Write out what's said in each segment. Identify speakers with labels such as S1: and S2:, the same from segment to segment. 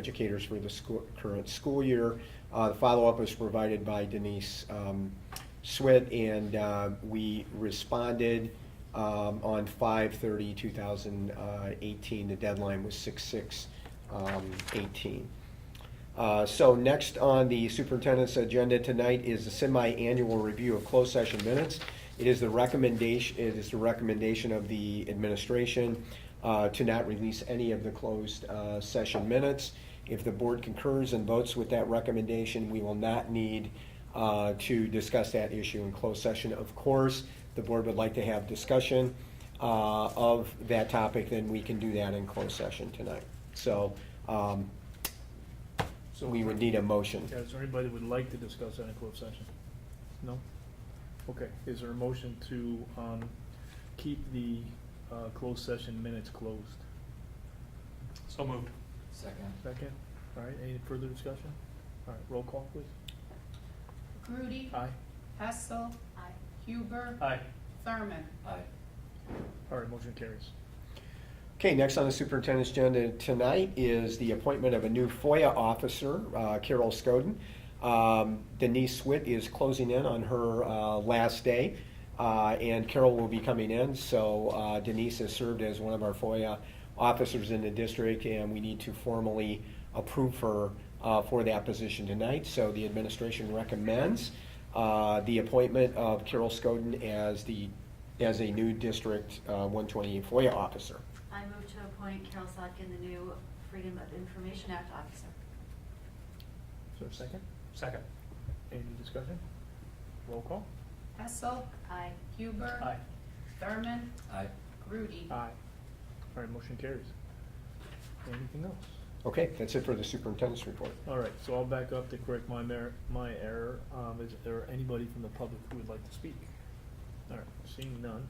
S1: educators for the school, current school year. Uh, the follow-up was provided by Denise, um, Swit, and, uh, we responded, um, on 2018. uh, The deadline was six-six, um, eighteen. Uh, So next on the superintendent's agenda tonight is the semi-annual review of closed session minutes. It is the recommendation, it is the recommendation of the administration uh, to not release any of the closed uh, session minutes. If the board concurs and votes with that recommendation, we will not need uh, to discuss that issue in closed session. Of course, the board would like to have discussion uh, of that topic, then we can do that in closed session tonight. So um,
S2: So
S1: we would need a motion.
S2: Yeah, is there anybody that would like to discuss that in closed session? No? Okay, is there a motion to, um, keep the, uh, closed session minutes closed?
S3: So moved.
S4: Second.
S2: Second, all right, any further discussion? All right, roll call, please.
S5: Grudy.
S2: Aye.
S5: Hessel. Huber.
S3: Aye.
S5: Thurman.
S4: Aye.
S2: All right, motion carries.
S1: Okay, next on the superintendent's agenda tonight is the appointment of a new FOIA officer, uh, Carol Scoden. Um, Denise Swit is closing in on her uh, last day, uh, and Carol will be coming in. So uh, Denise has served as one of our FOIA officers in the district, and we need to formally approve her uh, for that position tonight. So the administration recommends uh, the appointment of Carol Scoden as the, as a new District uh, 128 FOIA officer.
S6: I move to appoint Carol Sotkin, the new Freedom of Information Act officer.
S2: Is there a second?
S3: Second.
S2: Any discussion? Roll call?
S5: Hessel.
S6: Aye.
S5: Huber.
S3: Aye.
S5: Thurman.
S4: Aye.
S5: Grudy.
S2: Aye. All right, motion carries. Anything else?
S1: Okay, that's it for the superintendent's report.
S2: All right, so I'll back up to correct my mer- my error. Um, is there anybody from the public who would like to speak? All right, seeing none,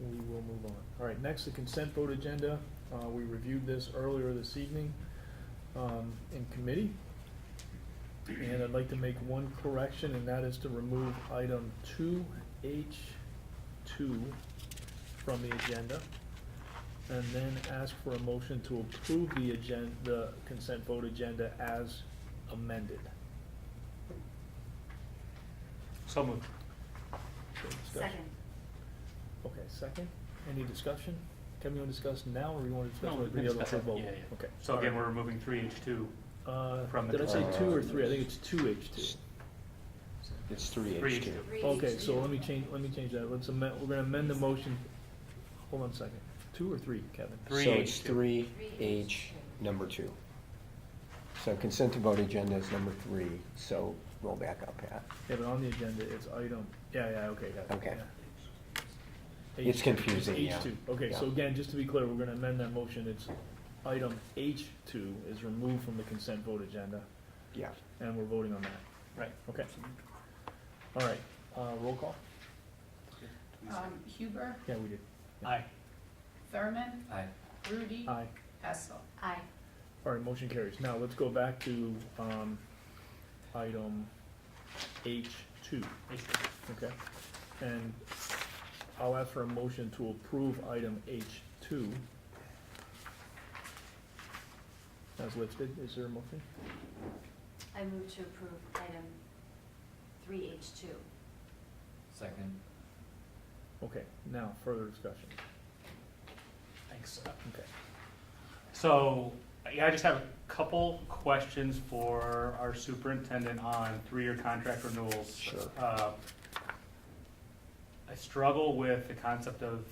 S2: we will move on. All right, next, the consent vote agenda. Uh, we reviewed this earlier this evening, um, in committee. And I'd like to make one correction, and that is to remove item two H two from the agenda and then ask for a motion to approve the agenda, the consent vote agenda as amended.
S3: So moved.
S2: So discussion.
S6: Second.
S2: Okay, second. Any discussion? Can we discuss now, or we want to discuss
S3: No, we
S2: with
S3: can
S2: the other
S3: discuss
S2: for
S3: it.
S2: vote?
S3: Yeah, yeah.
S2: Okay.
S3: So again, we're removing three H two.
S2: Uh,
S3: from the
S2: did I say two or
S3: consent.
S2: three? I think it's two H two.
S1: It's three
S3: Three
S1: H two.
S3: H2.
S2: Okay, so let me change, let me change that. Let's amend, we're gonna amend the motion. Hold on a second. Two or three, Kevin?
S3: Three
S1: So it's
S3: H2.
S1: three H number two. So consent to vote agenda is number three, so roll back up, Pat.
S2: Yeah, but on the agenda, it's item, yeah, yeah, okay, got it.
S1: Okay.
S2: yeah.
S1: It's
S2: H-
S1: confusing,
S2: it's
S1: yeah.
S2: H2, okay, so
S1: Yeah.
S2: again, just to be clear, we're gonna amend that motion, it's item H two is removed from the consent vote agenda,
S1: Yeah.
S2: and we're voting on that,
S3: Right.
S2: okay? All right, uh, roll call?
S5: Um, Huber.
S2: Yeah, we did.
S3: Aye.
S5: Thurman.
S4: Aye.
S5: Grudy.
S2: Aye.
S5: Hessel.
S6: Aye.
S2: All right, motion carries. Now, let's go back to, um, item H two.
S3: H two.
S2: Okay, and I'll ask for a motion to approve item H two. As listed, is there a motion?
S6: I move to approve item three H two.
S4: Second.
S2: Okay, now, further discussion,
S3: Thanks.
S2: okay.
S3: So, yeah, I just have a couple questions for our superintendent on three-year contract renewals.
S1: Sure.
S3: Uh, I struggle with the concept of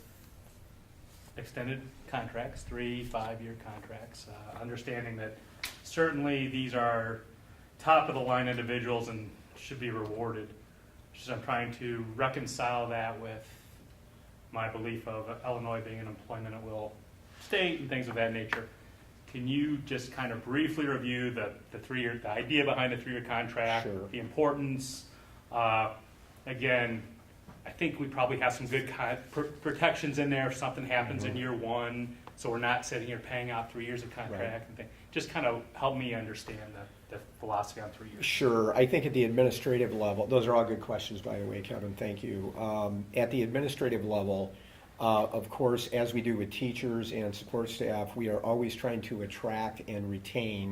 S3: extended contracts, three, five-year contracts, uh, understanding that certainly these are top-of-the-line individuals and should be rewarded. Just I'm trying to reconcile that with my belief of Illinois being an employment at will state and things of that nature. Can you just kind of briefly review the, the three-year, the idea behind the three-year contract?
S1: Sure.
S3: The importance, uh, again, I think we probably have some good con- pr- protections in there if something happens in
S1: Mhm.
S3: year one, so we're not sitting here paying out three years of contract and thing. Just kind of help me understand the, the philosophy on three years.
S1: Sure, I think at the administrative level, those are all good questions, by the way, Kevin, thank you. Um, At the administrative level, um, Uh, Of course, as we do with teachers and support staff, we are always trying to attract and retain